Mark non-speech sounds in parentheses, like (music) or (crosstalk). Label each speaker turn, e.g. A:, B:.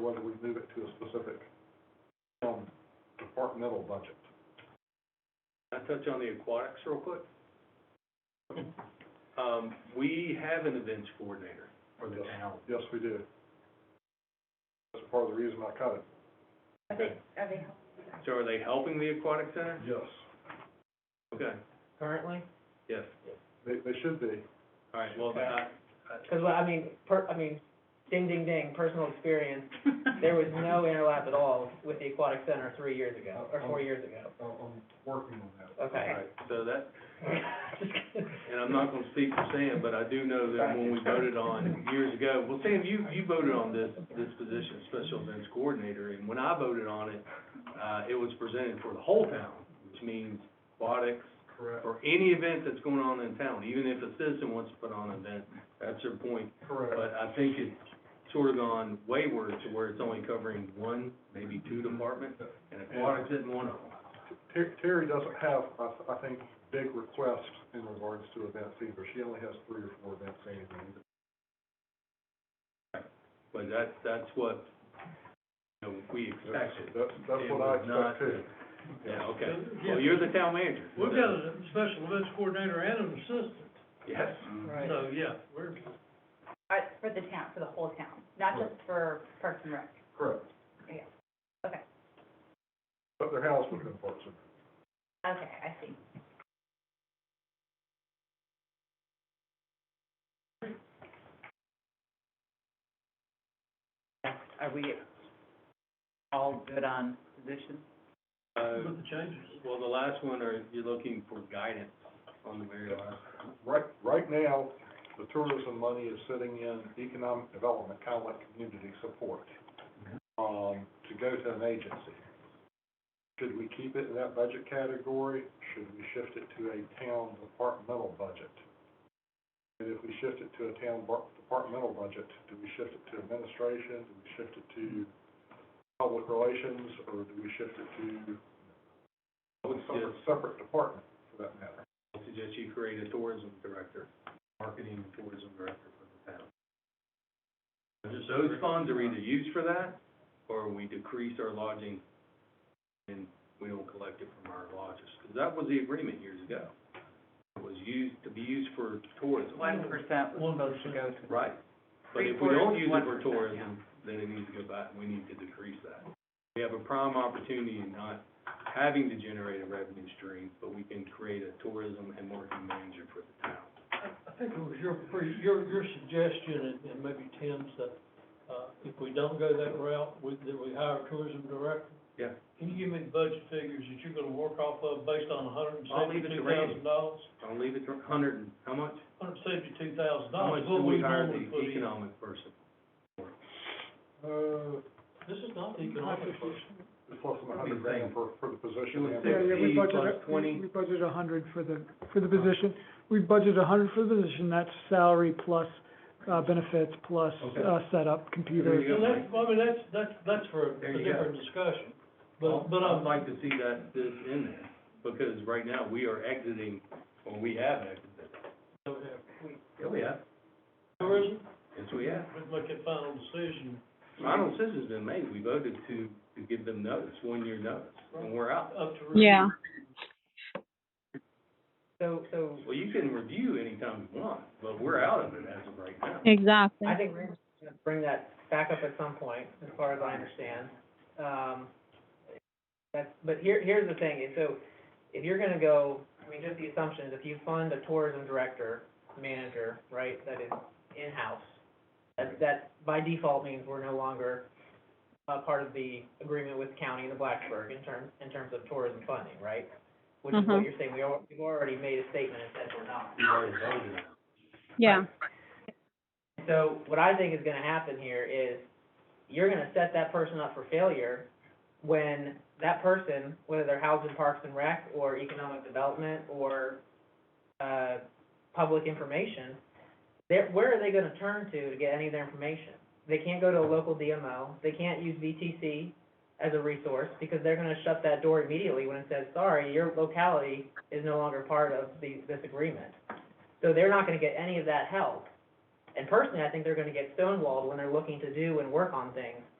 A: whether we move it to a specific, um, departmental budget.
B: Can I touch on the aquatics real quick? Um, we have an events coordinator for the town.
A: Yes, we do. That's part of the reason I cut it.
C: Are they, are they,
B: So are they helping the aquatic center?
A: Yes.
B: Okay,
D: currently?
B: yes.
A: They, they should be.
B: All right, well, uh, I,
D: Because, well, I mean, per, I mean, ding, ding, ding, personal experience, there was no interlap at all with the aquatic center three years ago, or four years ago.
A: I'm, I'm working on that.
B: all
D: Okay.
B: right, so that,
D: (laughs)
B: and I'm not gonna speak for Sam, but I do know that when we voted on years ago, well, Sam, you, you voted on this, this position, special events coordinator, and when I voted on it, uh, it was presented for the whole town, which means aquatics,
A: Correct,
B: for any event that's going on in town, even if a citizen wants to put on an event, that's your point.
A: correct.
B: But I think it's sort of gone wayward to where it's only covering one, maybe two departments, and aquatics isn't one of them.
A: Ter- Terry doesn't have, I, th- I think, big requests in regards to events either. She only has three or four events annually.
B: But that, that's what, you know, we expected.
A: That's, that's what I
B: It was not-
A: expect too.
B: Yeah, okay. Well, you're the town manager.
E: We've got a special events coordinator and an assistant,
B: Yes.
D: Right.
E: so, yeah, we're,
C: uh, for the town, for the whole town, not just for Parks and Rec?
A: Correct.
C: Yeah. Okay.
A: But their house would have been parts of it.
C: Okay, I see.
F: Are we all good on position?
B: Uh,
E: with the changes.
B: well, the last one, are, you're looking for guidance on the very last.
A: Right, right now, the tourism money is sitting in economic development, kind of like community support, um, to go to an agency. Should we keep it in that budget category? Should we shift it to a town departmental budget? And if we shift it to a town bar- departmental budget, do we shift it to administration? Do we shift it to public relations, or do we shift it to
B: I would
A: some
B: suggest,
A: separate department, for that matter?
B: I would suggest you create a tourism director, marketing and tourism director for the town. Those funds are either used for that, or we decrease our lodging and we don't collect it from our lodges. Because that was the agreement years ago. It was used, to be used for tourism.
F: One percent was supposed to go to.
B: Right. But if we don't use it for tourism, then it needs to go back, we need to decrease that. We have a prime opportunity in not having to generate a revenue stream, but we can create a tourism and marketing manager for the town.
E: I I think it was your, pre- your, your suggestion, and- and maybe Tim's, that, uh, if we don't go that route, we, that we hire a tourism director.
B: Yeah.
E: Can you give me the budget figures that you're gonna work off of based on hundred and
B: I'll leave it to
E: seventy-two
B: Randy.
E: thousand dollars?
B: I'll leave it to hundred and, how much?
E: Hundred and seventy-two thousand
B: How
E: dollars,
B: much do
E: what we
B: we hire
E: normally
B: the
E: put in.
B: economic person?
A: Uh,
E: This is not the economic person.
A: It's less than a hundred
B: Same.
A: grand for, for the
B: It
A: position.
B: was
G: Yeah, yeah,
B: sixty
G: we
B: plus
G: budgeted, we-
B: twenty,
G: we budgeted a hundred for the, for the position. We budgeted a hundred for the position, that's salary plus, uh, benefits plus,
B: Okay.
G: uh, setup,
B: There
G: computer.
B: you go.
E: Well, that's, I mean, that's, that's, that's for
B: There
E: a
B: you go.
E: different discussion,
B: but,
E: but, but I'm
B: I'd like to see that, this in there, because right now, we are exiting, or we have exited. Yeah, we have.
E: Tourism,
B: Yes, we have.
E: we'd make a final decision.
B: Final decision's been made, we voted to, to give them notice, one year notice, and we're out.
E: up to. review.
H: Yeah,
D: So, so,
B: Well, you can review anytime you want, but we're out of it as of right now.
H: exactly.
D: I think we're gonna bring that back up at some point, as far as I understand. Um, that's, but here, here's the thing, is so, if you're gonna go, I mean, just the assumption is if you fund a tourism director, manager, right, that is in-house, that, that by default means we're no longer, uh, part of the agreement with the county and the Blacksburg in terms, in terms of tourism funding, right? Which is what
H: Mhm.
D: you're saying, we al- we've already made a statement and said we're not.
B: We already voted.
H: Yeah,
D: So what I think is gonna happen here is, you're gonna set that person up for failure when that person, whether they're housed in Parks and Rec or Economic Development or, uh, Public Information, they're, where are they gonna turn to to get any of their information? They can't go to a local DMO, they can't use VTC as a resource, because they're gonna shut that door immediately when it says, sorry, your locality is no longer part of the, this agreement. So they're not gonna get any of that help. And personally, I think they're gonna get stonewalled when they're looking to do and work on things